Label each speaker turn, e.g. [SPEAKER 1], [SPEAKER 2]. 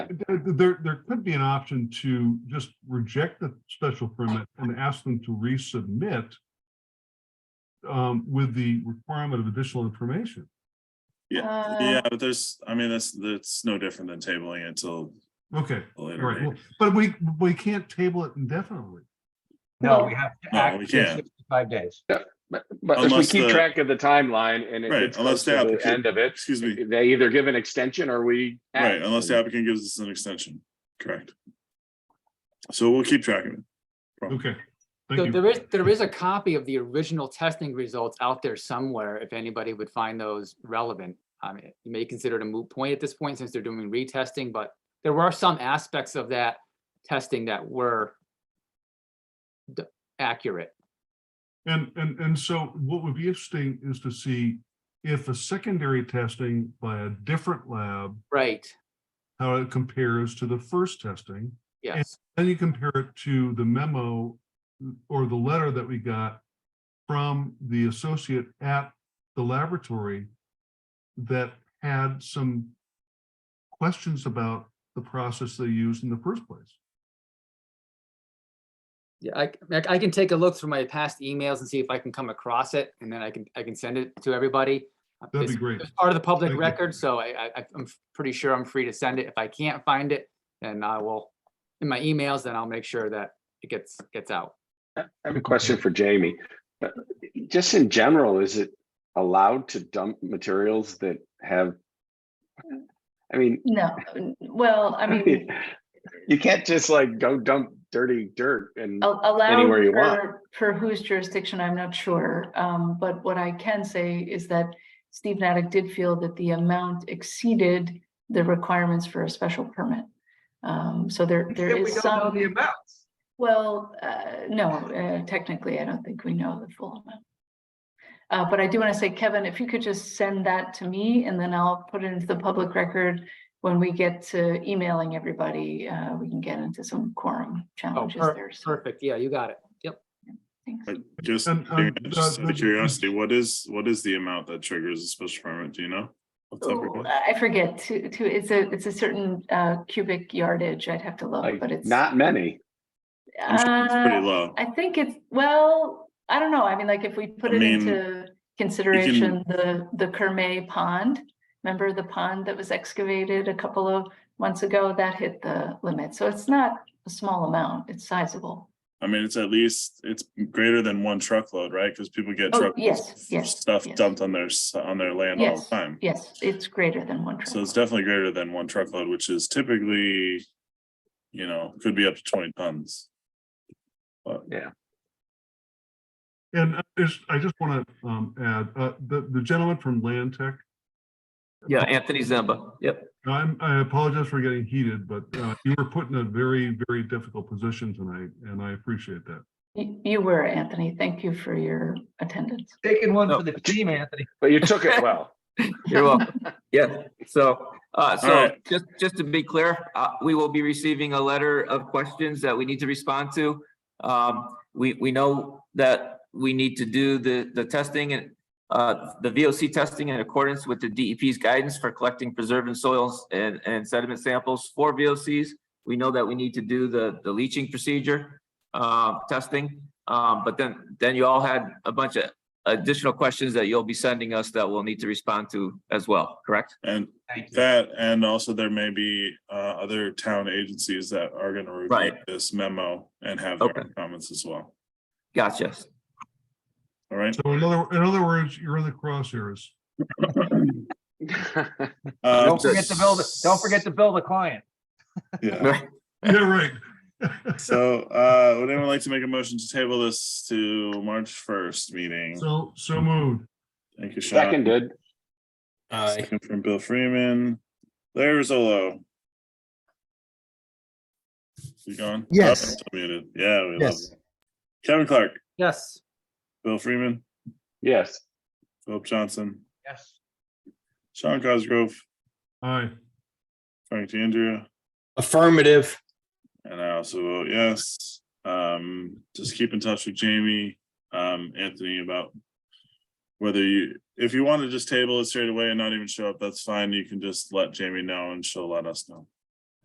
[SPEAKER 1] There, there could be an option to just reject the special permit and ask them to resubmit um, with the requirement of additional information.
[SPEAKER 2] Uh,
[SPEAKER 3] Yeah, yeah, but there's, I mean, that's, that's no different than tabling it until
[SPEAKER 1] Okay,
[SPEAKER 3] a
[SPEAKER 1] all
[SPEAKER 3] later
[SPEAKER 1] right,
[SPEAKER 3] date.
[SPEAKER 1] well, but we, we can't table it indefinitely.
[SPEAKER 4] No,
[SPEAKER 2] Well-
[SPEAKER 4] we have to
[SPEAKER 3] No, we
[SPEAKER 4] act
[SPEAKER 3] can't.
[SPEAKER 4] in sixty-five days.
[SPEAKER 5] But, but if we
[SPEAKER 3] Unless
[SPEAKER 5] keep
[SPEAKER 3] the-
[SPEAKER 5] track of the timeline and it
[SPEAKER 3] Right,
[SPEAKER 5] gets
[SPEAKER 3] unless
[SPEAKER 5] close
[SPEAKER 3] the
[SPEAKER 5] to the
[SPEAKER 3] applicant-
[SPEAKER 5] end of it,
[SPEAKER 3] Excuse me,
[SPEAKER 5] they either give an extension or we.
[SPEAKER 3] right,
[SPEAKER 5] act.
[SPEAKER 3] unless the applicant gives us an extension, correct. So we'll keep track of it.
[SPEAKER 1] Okay.
[SPEAKER 2] So
[SPEAKER 1] Thank you.
[SPEAKER 2] there is, there is a copy of the original testing results out there somewhere, if anybody would find those relevant. I mean, you may consider it a moot point at this point since they're doing retesting, but there were some aspects of that testing that were d- accurate.
[SPEAKER 1] And, and, and so what would be interesting is to see if a secondary testing by a different lab,
[SPEAKER 2] Right,
[SPEAKER 1] how it compares to the first testing.
[SPEAKER 2] yes,
[SPEAKER 1] Then you compare it to the memo or the letter that we got from the associate at the laboratory that had some questions about the process they used in the first place.
[SPEAKER 2] yeah, I, I- I can take a look through my past emails and see if I can come across it, and then I can, I can send it to everybody. Uh,
[SPEAKER 1] That'd be
[SPEAKER 2] It's-
[SPEAKER 1] great.
[SPEAKER 2] It's part of the public
[SPEAKER 1] Thank you.
[SPEAKER 2] record, so I, I, I'm pretty sure I'm free to send it. If I can't find it, then I will, in my emails, then I'll make sure that it gets, gets out.
[SPEAKER 5] I have a question for Jamie. Uh, Just in general, is it allowed to dump materials that have? I mean,
[SPEAKER 2] No.
[SPEAKER 6] Well, I mean,
[SPEAKER 5] you can't just like go dump dirty dirt and,
[SPEAKER 6] al- allowed
[SPEAKER 5] Anywhere you want.
[SPEAKER 6] for, for whose jurisdiction, I'm not sure. Um, but what I can say is that Steve Natick did feel that the amount exceeded the requirements for a special permit. Um, so there, there
[SPEAKER 7] If we
[SPEAKER 6] is
[SPEAKER 7] don't know the
[SPEAKER 6] some,
[SPEAKER 7] amounts.
[SPEAKER 6] well, uh, no, uh, technically, I don't think we know the full amount. Uh, but I do want to say, Kevin, if you could just send that to me and then I'll put it into the public record. When we get to emailing everybody, uh, we can get into some quorum
[SPEAKER 2] Oh,
[SPEAKER 6] challenges
[SPEAKER 2] per-
[SPEAKER 6] there. So
[SPEAKER 2] perfect. Yeah, you got it. Yep.
[SPEAKER 6] thanks.
[SPEAKER 3] But Just
[SPEAKER 1] And, um,
[SPEAKER 3] just
[SPEAKER 1] uh,
[SPEAKER 3] out
[SPEAKER 1] the-
[SPEAKER 3] of curiosity, what is, what is the amount that triggers a special permit, do you know? What's that
[SPEAKER 6] Oh,
[SPEAKER 3] regard?
[SPEAKER 6] I forget to, to, it's a, it's a certain uh, cubic yardage. I'd have to look,
[SPEAKER 5] like,
[SPEAKER 6] but it's.
[SPEAKER 5] not many.
[SPEAKER 3] I'm sure It's
[SPEAKER 6] uh,
[SPEAKER 3] pretty low.
[SPEAKER 6] I think it's, well, I don't know. I mean, like if we put
[SPEAKER 3] I
[SPEAKER 6] it
[SPEAKER 3] mean,
[SPEAKER 6] into consideration, the, the Kermay Pond. Remember the pond that was excavated a couple of months ago? That hit the limit. So it's not a small amount. It's sizable.
[SPEAKER 3] I mean, it's at least, it's greater than one truckload, right? Because people get
[SPEAKER 6] Oh,
[SPEAKER 3] truck.
[SPEAKER 6] yes, yes,
[SPEAKER 3] Stuff
[SPEAKER 6] yes.
[SPEAKER 3] dumped on their, s- on their land all the
[SPEAKER 6] Yes,
[SPEAKER 3] time.
[SPEAKER 6] yes, it's greater than one.
[SPEAKER 3] So it's
[SPEAKER 6] truck.
[SPEAKER 3] definitely greater than one truckload, which is typically, you know, could be up to twenty tons. But
[SPEAKER 1] And uh, there's, I just want to um, add, uh, the, the gentleman from Land Tech,
[SPEAKER 8] Yeah, Anthony Zamba. Yep.
[SPEAKER 1] I'm, I apologize for getting heated, but uh, you were put in a very, very difficult position tonight, and I appreciate that.
[SPEAKER 6] You you were, Anthony. Thank you for your attendance.
[SPEAKER 4] Taking one
[SPEAKER 8] No.
[SPEAKER 4] for the team, Anthony.
[SPEAKER 5] But you took it well.
[SPEAKER 8] You're welcome. Yeah, so, uh, so
[SPEAKER 3] right.
[SPEAKER 8] just, just to be clear, uh, we will be receiving a letter of questions that we need to respond to. Um, we, we know that we need to do the, the testing and, uh, the VOC testing in accordance with the DEP's guidance for collecting preserving soils and, and sediment samples for VOCs. We know that we need to do the, the leaching procedure, uh, testing. Um, but then, then you all had a bunch of additional questions that you'll be sending us that we'll need to respond to as well, correct?
[SPEAKER 3] and
[SPEAKER 4] Thank you.
[SPEAKER 3] that, and also there may be uh other town agencies that are gonna review
[SPEAKER 8] Right.
[SPEAKER 3] this memo and have their
[SPEAKER 8] Okay.
[SPEAKER 3] own comments as well.
[SPEAKER 8] Gotcha.
[SPEAKER 3] All right,
[SPEAKER 1] So in other, in other words, you're in the crosshairs.
[SPEAKER 3] Uh,
[SPEAKER 4] Don't forget to build, don't forget to build a client.
[SPEAKER 3] yeah.
[SPEAKER 1] Yeah, right.
[SPEAKER 3] So, uh, would anyone like to make a motion to table this to March first meeting?
[SPEAKER 1] So, so moved.
[SPEAKER 3] Thank you, Sean.
[SPEAKER 5] Seconded,
[SPEAKER 3] Second from Bill Freeman. Larry Rizzolo. You gone? Oh,
[SPEAKER 9] Yes.
[SPEAKER 3] it's Muted. Yeah, we love
[SPEAKER 9] Yes.
[SPEAKER 3] you. Kevin Clark,
[SPEAKER 2] Yes.
[SPEAKER 3] Bill Freeman,
[SPEAKER 5] yes.
[SPEAKER 3] Philip Johnson,
[SPEAKER 4] Yes.
[SPEAKER 3] Sean Cosgrove,
[SPEAKER 1] Aye.
[SPEAKER 3] Frank DeAndrea,
[SPEAKER 9] Affirmative.
[SPEAKER 3] and I also vote yes. Um, just keep in touch with Jamie, um, Anthony about whether you, if you want to just table it straight away and not even show up, that's fine. You can just let Jamie know and she'll let us know.